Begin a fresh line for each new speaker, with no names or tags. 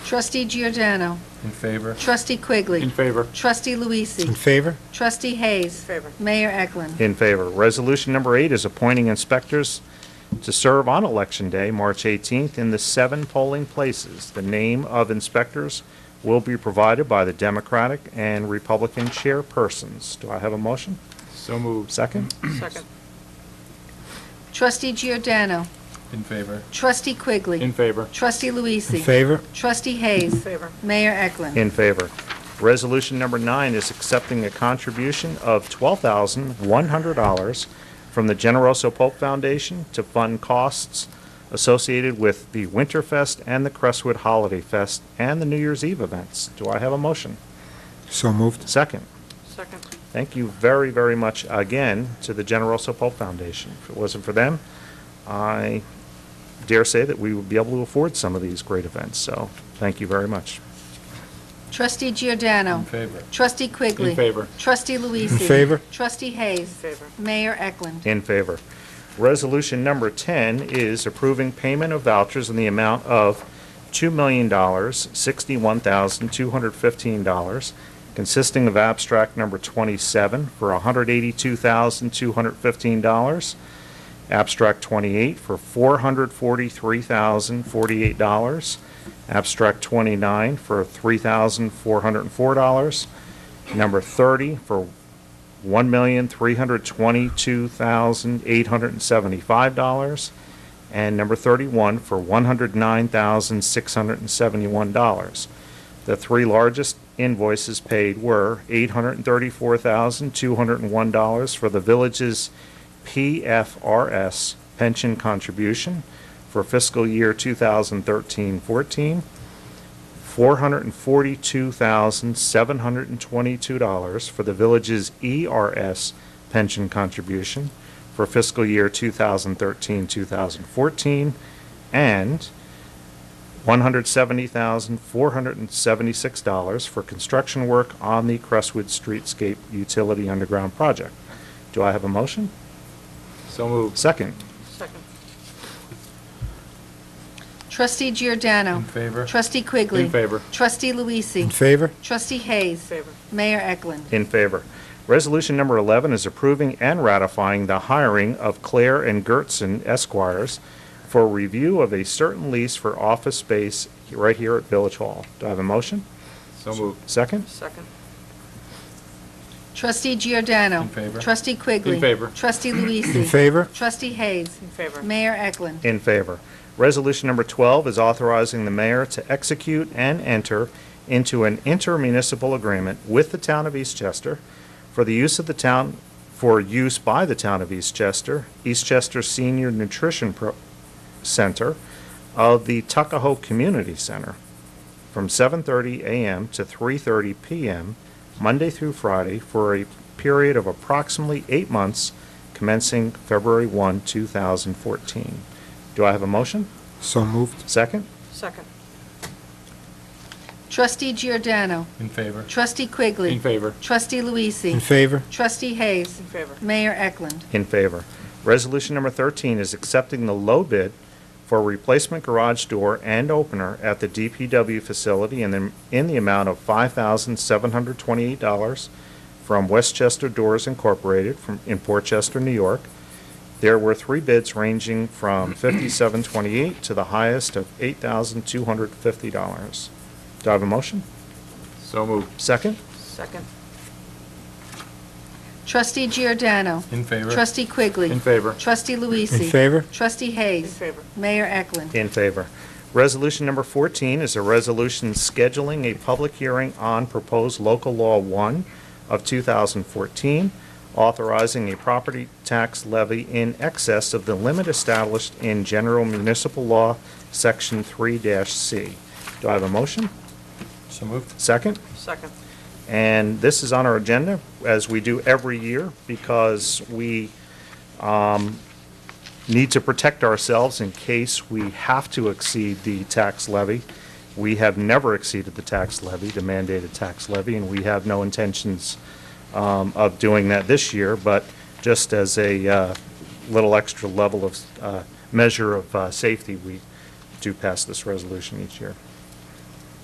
Trustee Giordano.
In favor?
Trustee
In
Quigley.
favor.
Trustee
In
Mm.
Luisee.
favor?
Trustee Hayes.
favor,
Mayor Eklund.
In favor. Resolution number eight is appointing inspectors to serve on Election Day, March 18th, in the seven polling places. The name of inspectors will be provided by the Democratic and Republican chairpersons. Do I have a motion?
So moved.
Second?
second,
Trustee Giordano.
In favor?
Trustee Quigley.
In favor.
Trustee Luisee.
In favor?
Trustee
in
Hayes.
favor,
Mayor Eklund.
In favor. Resolution number nine is accepting a contribution of $12,100 from the Generoso Pope Foundation to fund costs associated with the Winterfest and the Crestwood Holiday Fest and the New Year's Eve events. Do I have a motion?
So moved.
Second.
second,
Thank you very, very much again to the Generoso Pope Foundation. If it wasn't for them, I dare say that we would be able to afford some of these great events, so thank you very much.
Trustee Giordano.
In favor?
Trustee Quigley.
In favor.
Trustee Luisee.
In favor?
Trustee
in
Hayes.
favor,
Mayor Eklund.
In favor. Resolution number 10 is approving payment of vouchers in the amount of $2,061,215, consisting of abstract number 27 for $182,215, abstract 28 for $443,048, abstract 29 for $3,404, number 30 for $1,322,875, and number 31 for $109,671. The three largest invoices paid were $834,201 for the village's PFRS pension contribution for fiscal year 2013-14, $442,722 for the village's ERS pension contribution for fiscal year 2013-2014, and $170,476 for construction work on the Crestwood Streetscape Utility Underground Project. Do I have a motion?
So moved.
Second.
second,
Trustee
In
Giordano.
favor?
Trustee Quigley.
In favor.
Trustee
In
Luisee.
favor?
Trustee
in
Hayes.
favor,
Mayor Eklund.
In favor. Resolution number 11 is approving and ratifying the hiring of Claire and Gertson Esquires for review of a certain lease for office space right here at Village Hall. Do I have a motion?
So moved.
Second?
second,
Trustee Giordano.
In favor.
Trustee Quigley.
In favor.
Trustee
In
Luisee.
favor?
Trustee Hayes.
in favor,
Mayor Eklund.
In favor. Resolution number 12 is authorizing the mayor to execute and enter into an intermunicipal agreement with the town of Eastchester for the use of the town, for use by the town of Eastchester, Eastchester Senior Nutrition Pro- Center of the Tuckahoe Community Center from 7:30 a.m. to 3:30 p.m., Monday through Friday, for a period of approximately eight months commencing February 1, 2014. Do I have a motion?
So moved.
Second?
second,
Trustee Giordano.
In favor?
Trustee Quigley.
In favor.
Trustee Luisee.
In favor?
Trustee Hayes.
in favor,
Mayor Eklund.
In favor. Resolution number 13 is accepting the low bid for replacement garage door and opener at the DPW facility in the, in the amount of $5,728 from Westchester Doors Incorporated from, in Port Chester, New York. There were three bids ranging from $5,728 to the highest of $8,250. Do I have a motion?
So moved.
Second?
second,
Trustee Giordano.
In favor?
Trustee Quigley.
In favor.
Trustee Luisee.
In favor?
Trustee
in
Hayes.
favor,
Mayor Eklund.
In favor. Resolution number 14 is a resolution scheduling a public hearing on proposed local law 1 of 2014, authorizing a property tax levy in excess of the limit established in general municipal law, section 3-C. Do I have a motion?
So moved?
Second?
second,
And this is on our agenda, as we do every year, because we um, need to protect ourselves in case we have to exceed the tax levy. We have never exceeded the tax levy, the mandated tax levy, and we have no intentions um, of doing that this year, but just as a uh, little extra level of, uh, measure of uh, safety, we do pass this resolution each year.